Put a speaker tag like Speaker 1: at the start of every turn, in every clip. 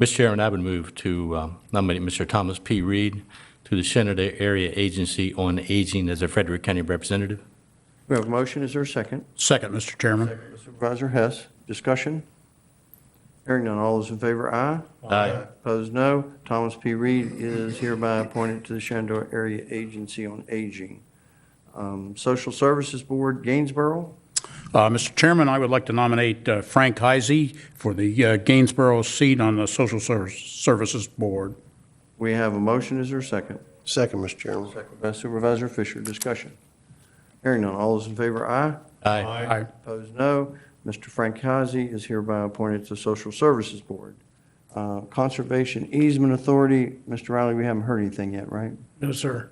Speaker 1: Mr. Chairman, I would move to um, nominate Mr. Thomas P. Reed to the Shenandoah Area Agency on Aging as a Frederick County Representative.
Speaker 2: We have a motion, is there a second?
Speaker 3: Second, Mr. Chairman.
Speaker 2: Supervisor Hess, discussion? Hearing none, all those in favor, aye.
Speaker 1: Aye.
Speaker 2: Opposed, no. Thomas P. Reed is hereby appointed to the Shenandoah Area Agency on Aging. Um, Social Services Board, Gainsborough,
Speaker 3: Uh, Mr. Chairman, I would like to nominate uh, Frank Heisey for the uh, Gainsborough seat on the Social Service- Services Board.
Speaker 2: we have a motion, is there a second?
Speaker 4: Second, Mr. Chairman.
Speaker 2: Second by Supervisor Fisher, discussion. Hearing none, all those in favor, aye.
Speaker 1: Aye.
Speaker 3: Aye.
Speaker 2: Opposed, no. Mr. Frank Heisey is hereby appointed to Social Services Board. Uh, Conservation Easement Authority, Mr. Riley, we haven't heard anything yet, right?
Speaker 3: No, sir.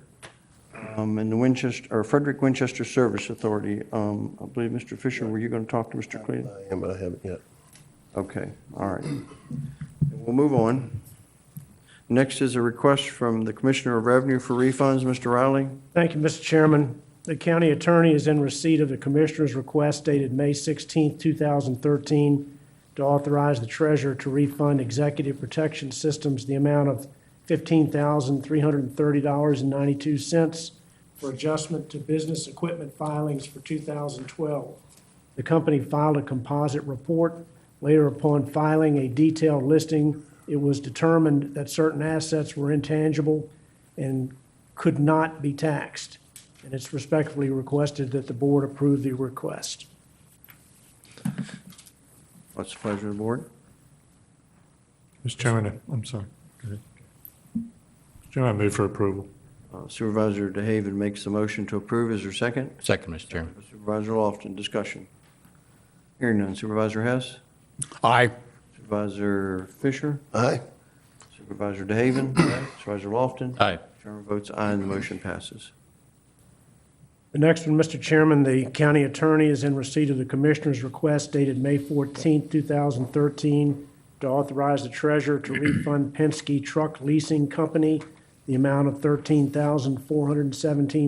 Speaker 2: Um, And the Winchester, or Frederick Winchester Service Authority, um, I believe, Mr. Fisher, were you going to talk to Mr. Clayton?
Speaker 4: I am, but I haven't yet.
Speaker 2: Okay, all right. We'll move on. Next is a request from the Commissioner of Revenue for refunds, Mr. Riley.
Speaker 5: Thank you, Mr. Chairman. The county attorney is in receipt of the commissioner's request dated May 16, 2013, to authorize the treasurer to refund Executive Protection Systems the amount of $15,330.92 for adjustment to business equipment filings for 2012. The company filed a composite report. Later upon filing a detailed listing, it was determined that certain assets were intangible and could not be taxed. And it's respectfully requested that the board approve the request.
Speaker 2: What's the pleasure of the board?
Speaker 6: Mr. Chairman, I'm sorry. Go ahead. Mr. Chairman, I move for approval.
Speaker 2: Uh, Supervisor DeHaven makes the motion to approve. Is there a second?
Speaker 1: Second, Mr. Chairman.
Speaker 2: Supervisor Lofton, discussion. Hearing none. Supervisor Hess?
Speaker 3: Aye.
Speaker 2: Supervisor Fisher?
Speaker 4: Aye.
Speaker 2: Supervisor DeHaven? Supervisor Lofton?
Speaker 1: Aye.
Speaker 2: Chairman votes aye and the motion passes.
Speaker 5: The next one, Mr. Chairman, the county attorney is in receipt of the commissioner's request dated May 14, 2013, to authorize the treasurer to refund Penske Truck Leasing Company the amount of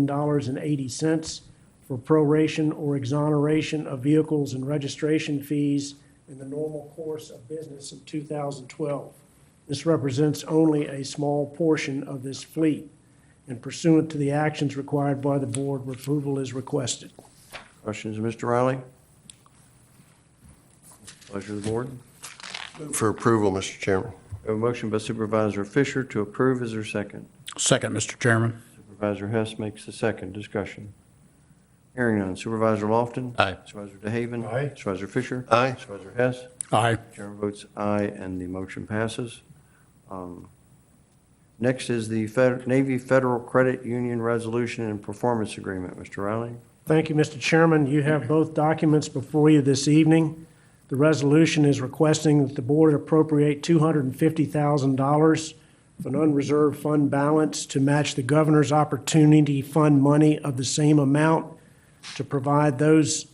Speaker 5: $13,417.80 for proration or exoneration of vehicles and registration fees in the normal course of business in 2012. This represents only a small portion of this fleet and pursuant to the actions required by the board, approval is requested.
Speaker 2: Questions, Mr. Riley? Pleasure of the board.
Speaker 4: Move For approval, Mr. Chairman.
Speaker 2: We have A motion by Supervisor Fisher to approve. Is there a second?
Speaker 3: Second, Mr. Chairman.
Speaker 2: Supervisor Hess makes the second. Discussion. Hearing none. Supervisor Lofton?
Speaker 1: Aye.
Speaker 2: Supervisor DeHaven?
Speaker 6: Aye.
Speaker 2: Supervisor Fisher?
Speaker 4: Aye.
Speaker 2: Supervisor Hess?
Speaker 3: Aye.
Speaker 2: Chairman votes aye, and the motion passes. Um, Next is the Fed- Navy Federal Credit Union Resolution and Performance Agreement. Mr. Riley?
Speaker 5: Thank you, Mr. Chairman. You have both documents before you this evening. The resolution is requesting that the board appropriate $250,000 of an unreserved fund balance to match the governor's opportunity fund money of the same amount to provide those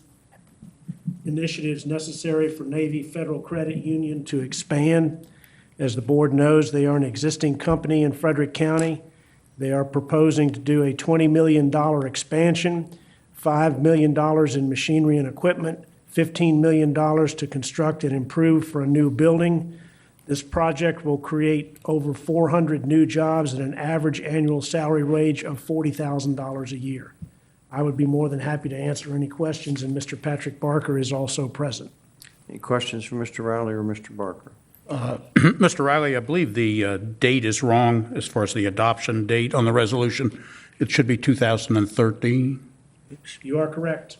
Speaker 5: initiatives necessary for Navy Federal Credit Union to expand. As the board knows, they are an existing company in Frederick County. They are proposing to do a $20 million expansion, $5 million in machinery and equipment, $15 million to construct and improve for a new building. This project will create over 400 new jobs at an average annual salary wage of $40,000 a year. I would be more than happy to answer any questions, and Mr. Patrick Barker is also present.
Speaker 2: Any questions for Mr. Riley or Mr. Barker?
Speaker 3: Mr. Riley, I believe the uh, date is wrong as far as the adoption date on the resolution. It should be 2013.
Speaker 5: You are correct.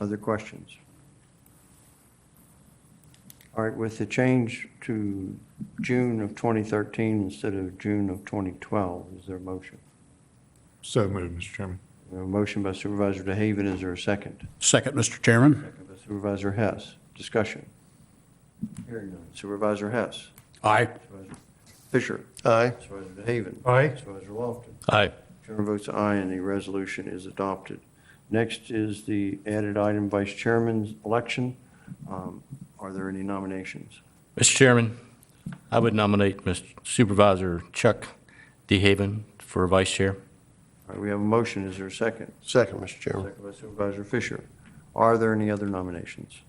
Speaker 2: Other questions? All right, with the change to June of 2013 instead of June of 2012, is there a motion?
Speaker 6: So moved, Mr. Chairman.
Speaker 2: We have A motion by Supervisor DeHaven, is there a second?
Speaker 3: Second, Mr. Chairman.
Speaker 2: Second by Supervisor Hess. Discussion. Hearing none. Supervisor Hess.
Speaker 3: Aye.
Speaker 2: Supervisor Fisher.
Speaker 4: Aye.
Speaker 2: Supervisor DeHaven.
Speaker 6: Aye.
Speaker 2: Supervisor Lofton.
Speaker 1: Aye.
Speaker 2: Chairman votes aye, and the resolution is adopted. Next is the added item, Vice Chairman's election. Um, Are there any nominations?
Speaker 1: Mr. Chairman, I would nominate Mr. Supervisor Chuck DeHaven for Vice Chair.
Speaker 2: All right, we have a motion. Is there a second?
Speaker 4: Second, Mr. Chairman.
Speaker 2: Second by Supervisor Fisher. Are there any other nominations?